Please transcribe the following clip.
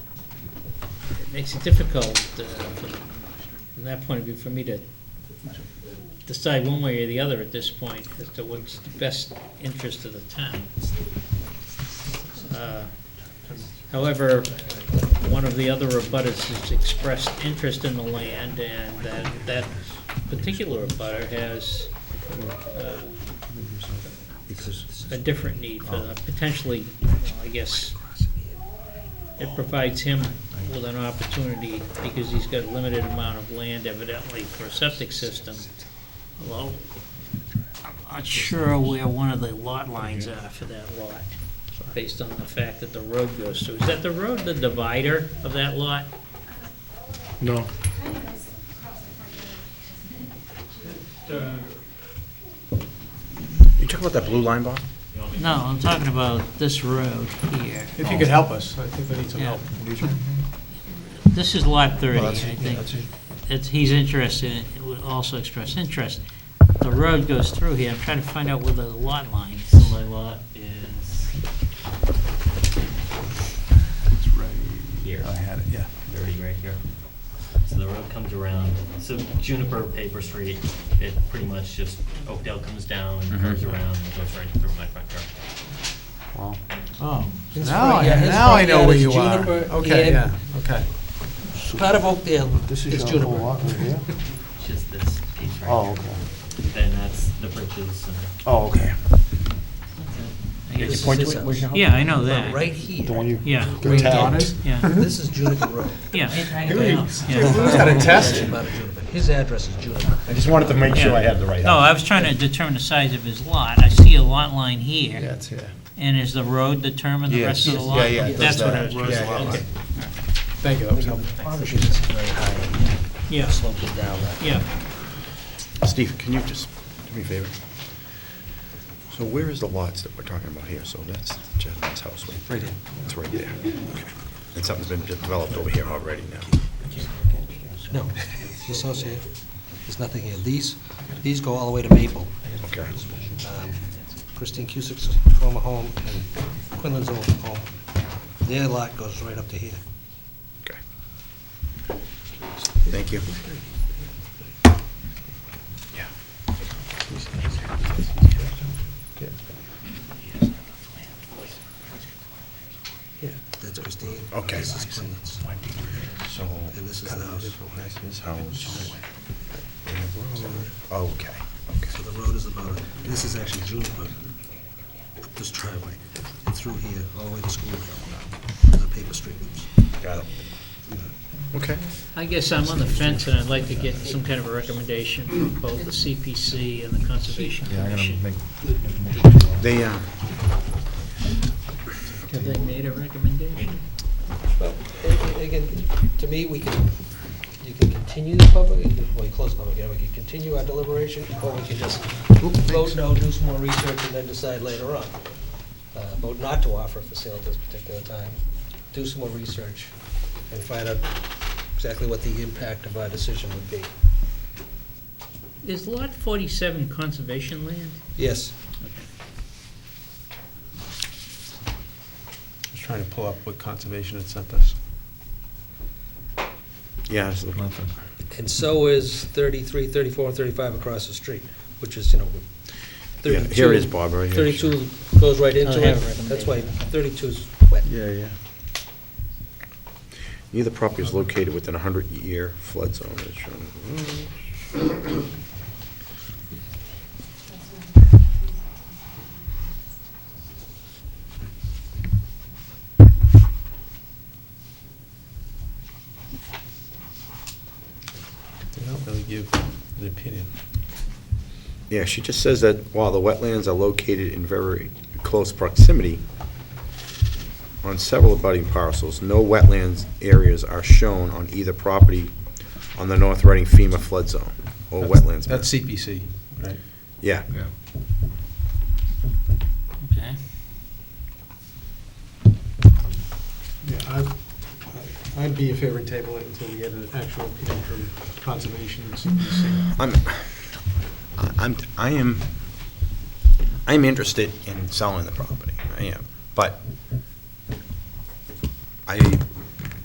makes it difficult uh, for- from that point of view for me to decide one way or the other at this point as to what's the best interest of the town. Uh, However, one of the other abutters has expressed interest in the land, and that, that particular abutter has uh, a different need for the, potentially, well, I guess, it provides him with an opportunity, because he's got a limited amount of land evidently for a septic system. Well, I'm not sure where one of the lot lines are for that lot, based on the fact that the road goes through. Is that the road, the divider of that lot? No, You talking about that blue line, Bob? No, I'm talking about this road here. If you could help us, I think we need some Yeah. Mm-hmm. help. This is lot 30, I think. Well, It's, he's interested, in- it would also express interest. The road goes through here, I'm trying to find out where the lot line is. My lot is. Here. I had it, yeah. Already right here. So the road comes around, so Juniper Paper Street, it pretty much just, Oakdale comes down and comes around and goes right through my front yard. His Now, front I- yard- his now I front know yard where is you are. Oh, Juniper Okay, and yeah, okay. Part of Oakdale This is is your whole Juniper. lot right here? It's just this piece right here. Oh, okay. Then that's the bridges and. Oh, okay. I guess it's point this to it? house. Where's your house? Yeah, I know But that. right The here, one you. Yeah, The town Donna's? yeah, this is Juniper Road. yeah. Who's got a test? About a Juniper. His address is Juniper. I just wanted to make sure I had the right No, house. Oh, I was trying to determine the size of his lot. I see a lot line Yeah, here, it's here. and is the road determined the rest of the lot? Yeah, yeah, it does That's what I that. was Yeah, trying to yeah, yeah. okay. Thank you, that was helpful. Obviously, this is very high, Yeah, sloped it down. yeah. Steve, can you just do me a favor? So where is the lots that we're talking about here? So that's Jedediah's house, right? Right here. It's right there. Okay. And something's been developed over here already now. No, this house here, there's nothing here. These, these go all the way to Maple. Okay. Um, Christine Cusick's former home and Quinlan's old home. Their lot goes right up to here. Okay. Thank you. Yeah. That's Christine. Okay. This is Quinlan's. So. And this is the house. His house. and the road. Okay, okay. So the road is about, this is actually Juniper, up this driveway, and through here, all the way to school, the paper street. Got it. Okay. I guess I'm on the fence, and I'd like to get some kind of a recommendation from both the CPC and the Conservation Commission. They, uh, Have they made a recommendation? Well, a- a- again, to me, we can, you can continue the public, well, you close the public, yeah, we can continue our deliberation, or we can just vote no, do some more research, and then decide later on. Uh, Vote not to offer for sale at this particular time, do some more research, and find out exactly what the impact of our decision would be. Is Lot 47 conservation land? Yes? Just trying to pull up what conservation had sent us. yeah, I was looking. And so is 33, 34, and 35 across the street, which is, you know, Yeah, 32. Here is Bob right here. 32 goes right into I it. have a That's why 32's wet. Yeah, yeah. Neither property is located within a hundred-year flood zone. as shown. They don't really give an opinion. Yeah, she just says that while the wetlands are located in very close proximity on several abutting parcels, no wetlands areas are shown on either property on the North Reading FEMA flood zone or That's- wetlands. map. That's CPC, right? Yeah, Okay. Yeah, I'd, I'd be in favor of table it until we get an actual opinion from conservation and CPC. I'm, I- I'm, I am, I'm interested in selling the property, I am, but I